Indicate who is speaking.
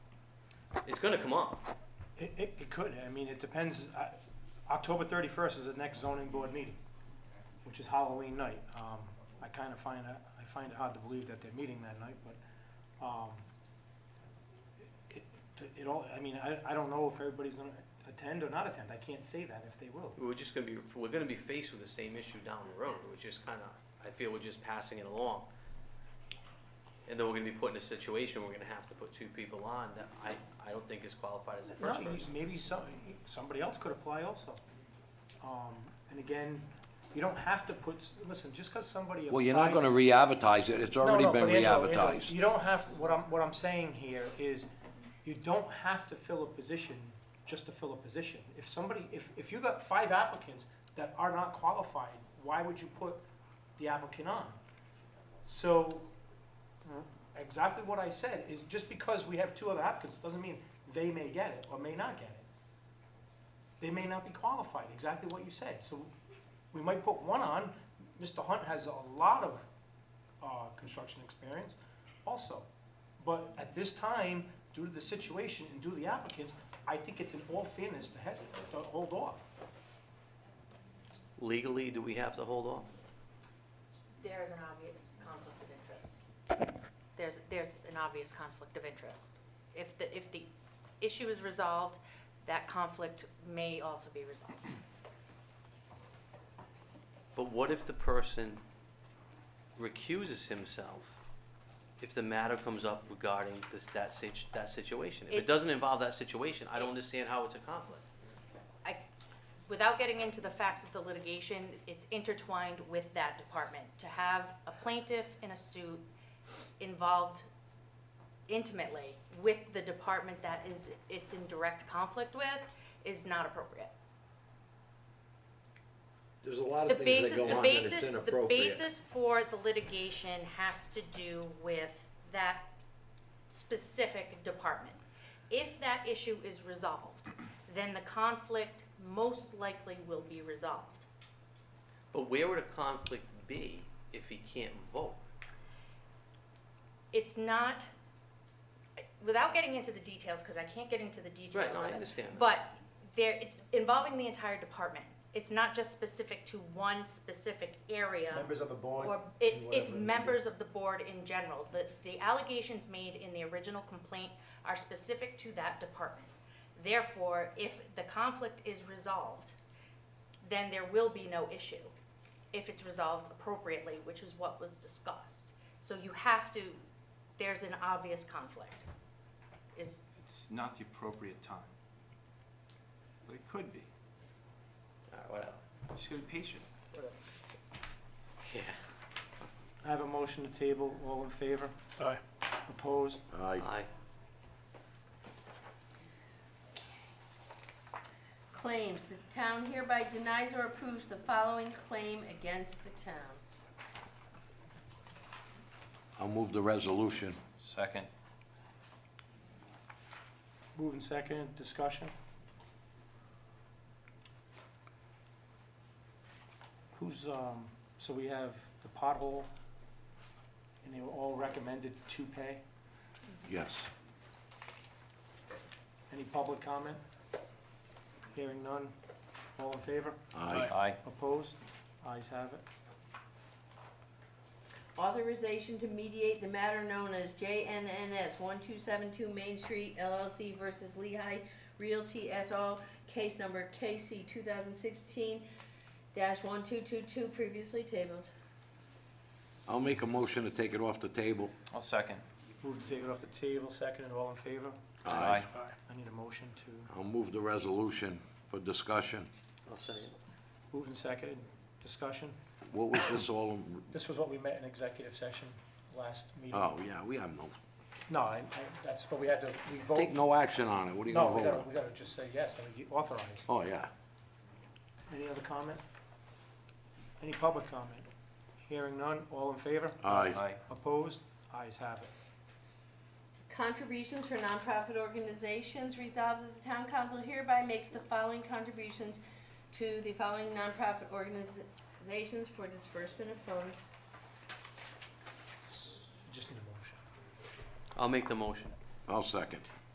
Speaker 1: it's gonna come up.
Speaker 2: It, it, it could, I mean, it depends, I, October thirty-first is the next zoning board meeting, which is Halloween night. Um, I kinda find, that- I find it hard to believe that they're meeting that night, but, um, it, it all, I mean, I, I don't know if everybody's gonna attend or not attend, I can't say that if they will.
Speaker 1: We're just gonna be, we're gonna be faced with the same issue down the road, which is kinda, I feel we're just passing it along. And then we're gonna be put in a situation, we're gonna have to put two people on that I, I don't think is qualified as a
Speaker 2: No,
Speaker 1: first
Speaker 2: you-
Speaker 1: person.
Speaker 2: maybe some, somebody else could apply also. Um, and again, you don't have to put, s- listen, just cause somebody applies.
Speaker 3: Well, you're not gonna re-advertise it, it's
Speaker 2: No,
Speaker 3: already
Speaker 2: no,
Speaker 3: been
Speaker 2: but Angelo, Angelo,
Speaker 3: re-advertised.
Speaker 2: You don't have, what I'm, what I'm saying here is, you don't have to fill a position just to fill a position. If somebody, if, if you got five applicants that are not qualified, why would you put the applicant on? So, exactly what I said, is just because we have two other applicants, doesn't mean they may get it or may not get it. They may not be qualified, exactly what you said. So, we might put one on, Mr. Hunt has a lot of uh, construction experience also. But at this time, due to the situation and due to the applicants, I think it's in all fairness to hesitate, to hold off.
Speaker 1: Legally, do we have to hold off?
Speaker 4: There is an obvious conflict of interest. There's, there's an obvious conflict of interest. If the, if the issue is resolved, that conflict may also be resolved.
Speaker 1: But what if the person recuses himself if the matter comes up regarding this, that sit, that situation? If it
Speaker 4: It-
Speaker 1: doesn't involve that situation, I don't
Speaker 4: It-
Speaker 1: understand how it's a conflict.
Speaker 4: I, without getting into the facts of the litigation, it's intertwined with that department. To have a plaintiff in a suit involved intimately with the department that is, it's in direct conflict with is not appropriate.
Speaker 3: There's a lot
Speaker 4: The basis, the basis, the basis for the litigation has to do with that specific department. If that issue is resolved, then the conflict most likely will be resolved.
Speaker 1: But where would a conflict be if he can't vote?
Speaker 4: It's not, without getting into the details, because I can't get into the details
Speaker 1: Right, no,
Speaker 4: of
Speaker 1: I
Speaker 4: it,
Speaker 1: understand.
Speaker 4: But there, it's involving the entire department. It's not just specific to one specific area.
Speaker 5: Members of the board.
Speaker 4: Or it's,
Speaker 5: and
Speaker 4: it's
Speaker 5: whatever.
Speaker 4: members of the board in general. The, the allegations made in the original complaint are specific to that department. Therefore, if the conflict is resolved, then there will be no issue if it's resolved appropriately, which is what was discussed. So you have to, there's an obvious conflict. Is,
Speaker 6: It's not the appropriate time. But it could be.
Speaker 1: All right, Uh, whatever.
Speaker 6: Just gotta be patient.
Speaker 1: Yeah.
Speaker 2: I have a motion to table, all in favor?
Speaker 5: Aye.
Speaker 2: Opposed?
Speaker 1: Aye.
Speaker 7: Claims, the town hereby denies or approves the following claim against the town.
Speaker 3: I'll move the resolution.
Speaker 6: Second.
Speaker 2: Moving second, discussion? Who's, um, so we have the pothole, and they were all recommended to pay.
Speaker 3: Yes.
Speaker 2: Any public comment? Hearing none. All in favor?
Speaker 3: Aye.
Speaker 6: Aye.
Speaker 2: Opposed? Eyes have it.
Speaker 7: Authorization to mediate the matter known as JNNS one two seven two Main Street LLC versus Lehigh Realty et al., case number KC two thousand sixteen one two two two, previously tabled.
Speaker 3: I'll make a motion to take it off the table.
Speaker 6: I'll second.
Speaker 2: Move to take it off the table, second and all in favor? I need a motion to,
Speaker 3: I'll move the resolution for discussion.
Speaker 1: I'll say it.
Speaker 2: move and second, discussion.
Speaker 3: What was this all, in-
Speaker 2: This was what we met in executive session last meeting.
Speaker 3: oh, yeah, we have no,
Speaker 2: No, I, I- that's what we had to, we vote.
Speaker 3: take no action on it, what are you
Speaker 2: No,
Speaker 3: gonna
Speaker 2: we
Speaker 3: vote
Speaker 2: gotta,
Speaker 3: on?
Speaker 2: we gotta just say yes, and we authorize.
Speaker 3: Oh, yeah.
Speaker 2: Any other comment? Any public comment? Hearing none, all in favor?
Speaker 3: Aye.
Speaker 2: Opposed? Eyes have it.
Speaker 7: Contributions for nonprofit organizations, resolved that the town council hereby makes the following contributions to the following nonprofit organizations for disbursement of funds.
Speaker 2: S- Just need a motion.
Speaker 1: I'll make the motion.
Speaker 3: I'll second.